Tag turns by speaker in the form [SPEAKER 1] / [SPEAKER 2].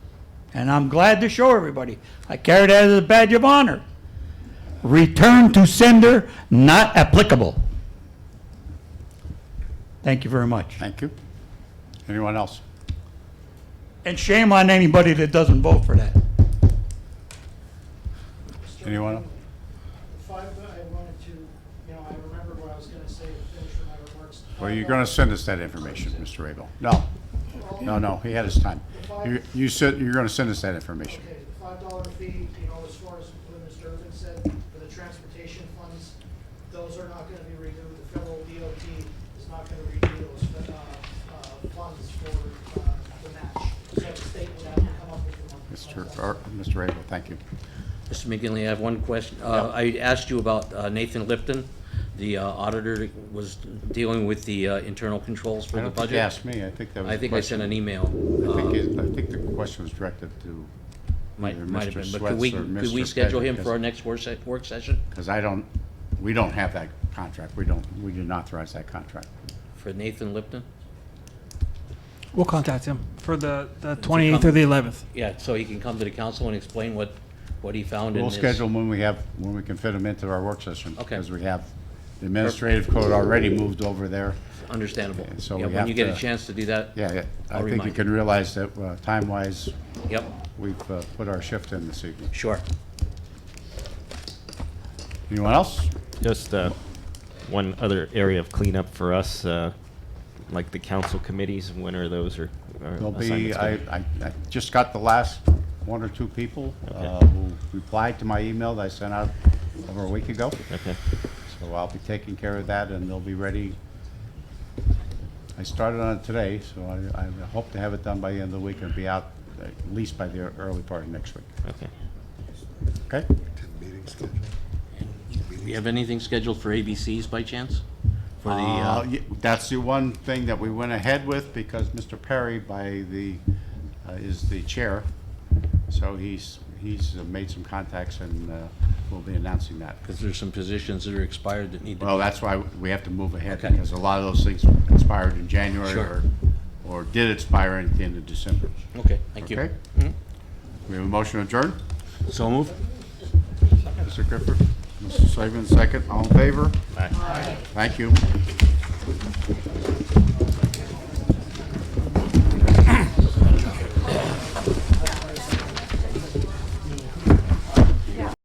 [SPEAKER 1] and I'm glad to show everybody. I carry that as a badge of honor. Return to sender, not applicable. Thank you very much.
[SPEAKER 2] Thank you. Anyone else?
[SPEAKER 1] And shame on anybody that doesn't vote for that.
[SPEAKER 2] Anyone? else?
[SPEAKER 3] Five, but I wanted to, you know, I remembered what I was gonna say to finish my remarks.
[SPEAKER 2] Well, you're going to send us that information, Mr. Rabel. No, no, no, he had his time. You- You said you're going to send us that information.
[SPEAKER 3] Okay, the five dollar fee, you know, as far as what Mr. Irvin said, for the transportation funds, those are not gonna be renewed. The federal DOT is not gonna renew those, uh, uh, funds for, uh, the match. So the state would have to come up with the money.
[SPEAKER 2] Mr. Ar- Mr. Rabel, thank you.
[SPEAKER 4] Mr. McGinley, I have one question. Uh, I asked you about uh, Nathan Lipton, the uh, auditor that was dealing with the uh, internal controls for
[SPEAKER 2] I
[SPEAKER 4] the
[SPEAKER 2] don't think you
[SPEAKER 4] budget.
[SPEAKER 2] asked me. I think that was.
[SPEAKER 4] I
[SPEAKER 2] a
[SPEAKER 4] think I sent an email.
[SPEAKER 2] question. I
[SPEAKER 4] uh,
[SPEAKER 2] think it- I think the question was directed to,
[SPEAKER 4] Might,
[SPEAKER 2] either
[SPEAKER 4] might have
[SPEAKER 2] Mr.
[SPEAKER 4] been, but could we,
[SPEAKER 2] Swets or
[SPEAKER 4] could we
[SPEAKER 2] Mr.
[SPEAKER 4] schedule him
[SPEAKER 2] Pettit,
[SPEAKER 4] for our next work se- work session
[SPEAKER 2] because I don't, we don't have that contract. We don't, we didn't authorize that contract.
[SPEAKER 4] for Nathan Lipton?
[SPEAKER 5] We'll contact him for the, the 28th or the 11th.
[SPEAKER 4] Yeah, so he can come to the council and explain what, what he found in
[SPEAKER 2] We'll
[SPEAKER 4] his.
[SPEAKER 2] schedule when we have, when we can fit them into our work session.
[SPEAKER 4] Okay.
[SPEAKER 2] Because we have the administrative code already moved over there.
[SPEAKER 4] Understandable.
[SPEAKER 2] And so
[SPEAKER 4] Yeah,
[SPEAKER 2] we
[SPEAKER 4] When
[SPEAKER 2] have
[SPEAKER 4] you get a
[SPEAKER 2] to-
[SPEAKER 4] chance to do that.
[SPEAKER 2] Yeah, yeah, I
[SPEAKER 4] I'll
[SPEAKER 2] think you
[SPEAKER 4] remind
[SPEAKER 2] can realize that uh, time-wise,
[SPEAKER 4] Yep,
[SPEAKER 2] we've uh, put our shift in this evening.
[SPEAKER 4] sure.
[SPEAKER 2] Anyone else?
[SPEAKER 6] Just uh, one other area of cleanup for us, uh, like the council committees, when are those or? or
[SPEAKER 2] There'll be,
[SPEAKER 6] assignments
[SPEAKER 2] I,
[SPEAKER 6] gonna-
[SPEAKER 2] I I just got the last one or two people uh,
[SPEAKER 6] Okay.
[SPEAKER 2] who replied to my email that I sent out over a week ago.
[SPEAKER 6] Okay,
[SPEAKER 2] So I'll be taking care of that, and they'll be ready. I started on it today, so I, I hope to have it done by the end of the week and be out at least by the early part of next week.
[SPEAKER 6] okay.
[SPEAKER 2] Okay?
[SPEAKER 4] Do you have anything scheduled for ABCs by chance? For the,
[SPEAKER 2] Uh,
[SPEAKER 4] uh,
[SPEAKER 2] ye- That's the one thing that we went ahead with because Mr. Perry by the, uh, is the chair. So he's, he's uh, made some contacts and uh, we'll be announcing that.
[SPEAKER 4] because there's some positions that are expired that need to be.
[SPEAKER 2] Well, that's why we have to move ahead
[SPEAKER 4] Okay.
[SPEAKER 2] because a lot of those things expired in January
[SPEAKER 4] Sure.
[SPEAKER 2] or, or did expire at the end of December.
[SPEAKER 4] Okay, thank you. Mm-hmm.
[SPEAKER 2] Okay? We have a motion adjourned.
[SPEAKER 4] So moved.
[SPEAKER 2] Mr. Griffith, Mr. Slavin, second. All in favor? Aye. Thank you.